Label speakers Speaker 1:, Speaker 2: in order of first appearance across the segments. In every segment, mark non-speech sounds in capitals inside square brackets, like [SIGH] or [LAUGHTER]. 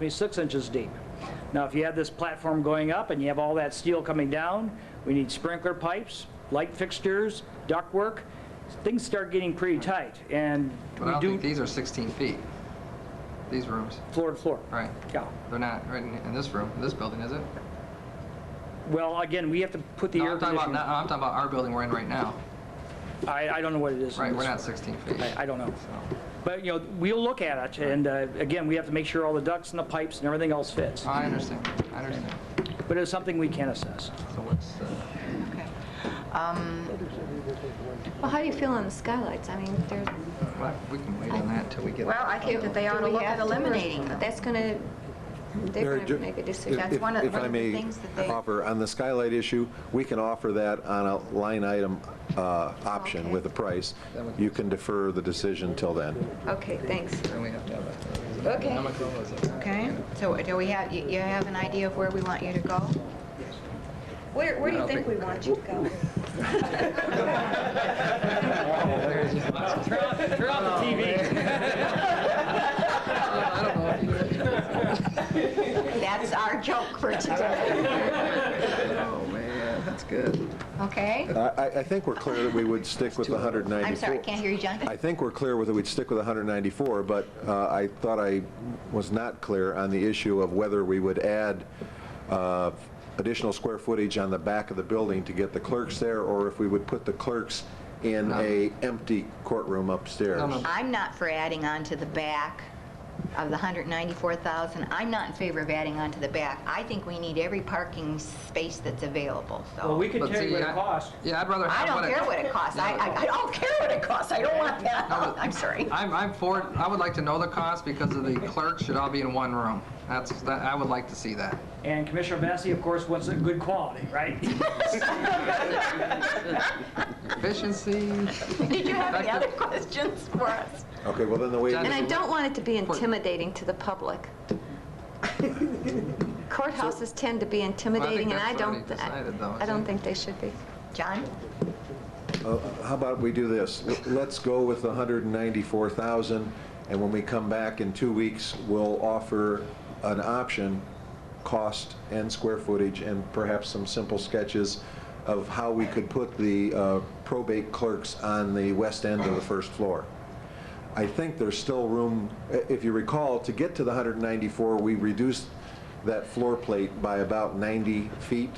Speaker 1: me six inches deep. Now, if you have this platform going up and you have all that steel coming down, we need sprinkler pipes, light fixtures, ductwork. Things start getting pretty tight, and
Speaker 2: But I
Speaker 1: we
Speaker 2: don't think
Speaker 1: do
Speaker 2: these are 16 feet, these rooms,
Speaker 1: floor to floor.
Speaker 2: right?
Speaker 1: Yeah.
Speaker 2: They're not right in, in this room, this building, is it?
Speaker 1: Well, again, we have to put the
Speaker 2: No,
Speaker 1: air
Speaker 2: I'm talking about,
Speaker 1: conditioning.
Speaker 2: no, I'm talking about our building we're in right now,
Speaker 1: I, I don't know what it is. in
Speaker 2: right? We're
Speaker 1: this-
Speaker 2: not 16 feet.
Speaker 1: I, I don't know.
Speaker 2: So,
Speaker 1: But, you know, we'll look at it, and uh, again, we have to make sure all the ducts and the pipes and everything else fits.
Speaker 2: I understand, I understand.
Speaker 1: But it's something we can assess.
Speaker 2: So what's, uh,
Speaker 3: Okay. Um, Well, how do you feel on the skylights? I mean, they're,
Speaker 2: well, we can wait on that until we get.
Speaker 4: Well, I think that they ought
Speaker 3: do
Speaker 4: to
Speaker 3: we
Speaker 4: look
Speaker 3: have
Speaker 4: at
Speaker 3: to or-
Speaker 4: eliminating them.
Speaker 3: That's going to, they're
Speaker 5: Mary
Speaker 3: going
Speaker 5: Jo-
Speaker 3: to make a
Speaker 5: if-
Speaker 3: decision.
Speaker 4: That's
Speaker 5: if-
Speaker 4: one of-
Speaker 5: if
Speaker 4: one
Speaker 5: I
Speaker 4: of the
Speaker 5: may
Speaker 4: things that they-
Speaker 5: Offer, on the skylight issue, we can offer that on a line item uh, option
Speaker 3: Okay.
Speaker 5: with a price.
Speaker 2: Then we can-
Speaker 5: You can defer the decision till then.
Speaker 3: Okay, thanks.
Speaker 2: Then we have to have a.
Speaker 3: Okay.
Speaker 2: How much room is it?
Speaker 4: Okay, so do we have, you you have an idea of where we want you to go?
Speaker 3: Where, where do you
Speaker 2: don't
Speaker 3: think we
Speaker 2: think-
Speaker 3: want you to go?
Speaker 2: Oh,
Speaker 1: Turn off the TV.
Speaker 2: I don't know if you-
Speaker 4: That's our joke for today,
Speaker 2: Oh, man, that's good.
Speaker 4: okay?
Speaker 5: I- I, I think we're clear that we would stick with the 194.
Speaker 4: I'm sorry, I can't hear you, John.
Speaker 5: I think we're clear with, we'd stick with 194, but uh, I thought I was not clear on the issue of whether we would add uh, additional square footage on the back of the building to get the clerks there, or if we would put the clerks in a empty courtroom upstairs.
Speaker 2: No, no.
Speaker 4: I'm not for adding on to the back of the 194,000. I'm not in favor of adding on to the back. I think we need every parking space that's available,
Speaker 1: Well,
Speaker 4: so.
Speaker 1: we could
Speaker 2: But
Speaker 1: tell you
Speaker 2: see,
Speaker 1: what it
Speaker 2: I-
Speaker 1: costs.
Speaker 2: Yeah, I'd rather.
Speaker 4: I
Speaker 2: have
Speaker 4: don't care what it costs. I, I I don't care what it costs. I don't want that.
Speaker 2: No,
Speaker 4: I'm sorry.
Speaker 2: I'm, I'm for, I would like to know the cost because of the clerks should all be in one room. That's, that, I would like to see that.
Speaker 1: And Commissioner Vassie, of course, wants a good quality, right?
Speaker 2: Efficiency,
Speaker 4: Did you have any other [LAUGHS] questions for us?
Speaker 5: Okay, well, then the way it is
Speaker 2: And
Speaker 3: And I don't want it to be
Speaker 2: Court-
Speaker 3: intimidating to the
Speaker 2: [LAUGHS]
Speaker 3: public. Courthouses tend to be intimidating, and I
Speaker 2: that's already
Speaker 3: don't, th-
Speaker 2: decided, though,
Speaker 3: I don't
Speaker 2: isn't
Speaker 3: think they should be.
Speaker 4: John?
Speaker 5: Uh, How about we do this? Let's go with the 194,000, and when we come back in two weeks, we'll offer an option, cost and square footage, and perhaps some simple sketches of how we could put the uh, probate clerks on the west end of the first floor. I think there's still room, i- if you recall, to get to the 194, we reduced that floor plate by about 90 feet.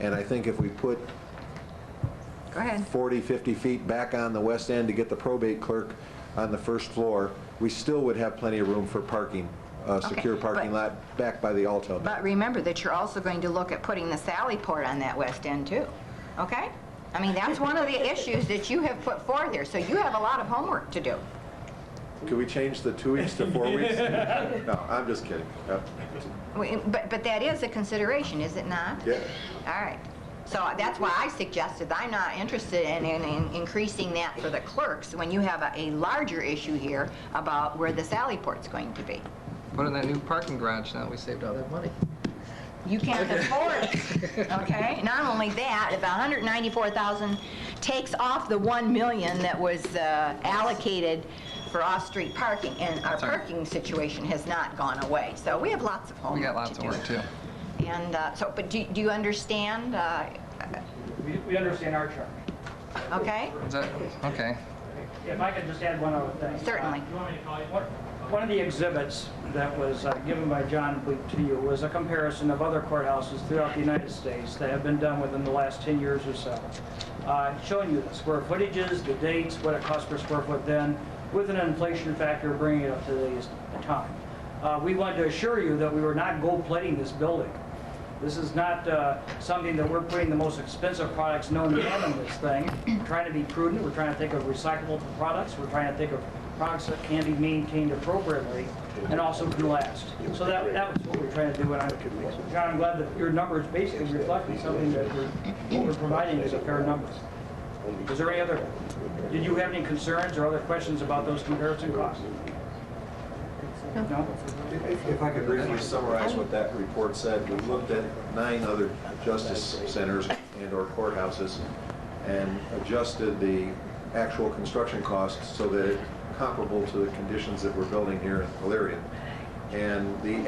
Speaker 5: And I think if we put
Speaker 4: Go ahead.
Speaker 5: 40, 50 feet back on the west end to get the probate clerk on the first floor, we still would have plenty of room for parking, a secure
Speaker 4: but-
Speaker 5: parking lot back by the Alto.
Speaker 4: But remember that you're also going to look at putting the Sally Port on that west end too, okay? I mean, that's one of the issues that you have put forth here, so you have a lot of homework to do.
Speaker 5: Could we change the two weeks to four
Speaker 4: [LAUGHS]
Speaker 5: weeks? No, I'm just kidding. Uh,
Speaker 4: We- But, but that is a consideration, is it not?
Speaker 5: Yeah.
Speaker 4: All right. So that's why I suggested, I'm not interested in, in in increasing that for the clerks when you have a, a larger issue here about where the Sally Port's going to be.
Speaker 2: put in that new parking garage now, we saved all that money.
Speaker 4: You can't afford it, okay? Not only that, if 194,000 takes off the 1 million that was uh, allocated for off-street parking, and our
Speaker 2: right.
Speaker 4: parking situation has not gone away, so we have lots of
Speaker 2: We
Speaker 4: homework to do.
Speaker 2: got lots of work too.
Speaker 4: And uh, so, but do do you understand, uh,
Speaker 1: We- We understand our charge.
Speaker 4: okay?
Speaker 2: Is that, okay.
Speaker 1: If I could just add one other thing. Uh,
Speaker 4: Certainly.
Speaker 1: One- One of the exhibits that was uh, given by John Bleak to you was a comparison of other courthouses throughout the United States that have been done within the last 10 years or so. Uh, Showing you the square footages, the dates, what it cost per square foot then, with an inflation factor bringing it up to today's time. Uh, We wanted to assure you that we were not gold plating this building. This is not uh, something that we're putting the most expensive products known to man in this thing. We're Trying to be prudent, we're trying to think of recyclable products, we're trying to think of products that can be maintained appropriately and also can last. So that, that was what we're trying to do, and I'm, John, I'm glad that your numbers basically reflect something that we're, what we're providing is a fair number. Is there any other, did you have any concerns or other questions about those comparison costs? No?
Speaker 5: If if I could briefly summarize what that report said, we looked at nine other justice centers and/or courthouses and adjusted the actual construction costs so that it comparable to the conditions that we're building here in Illyria. And the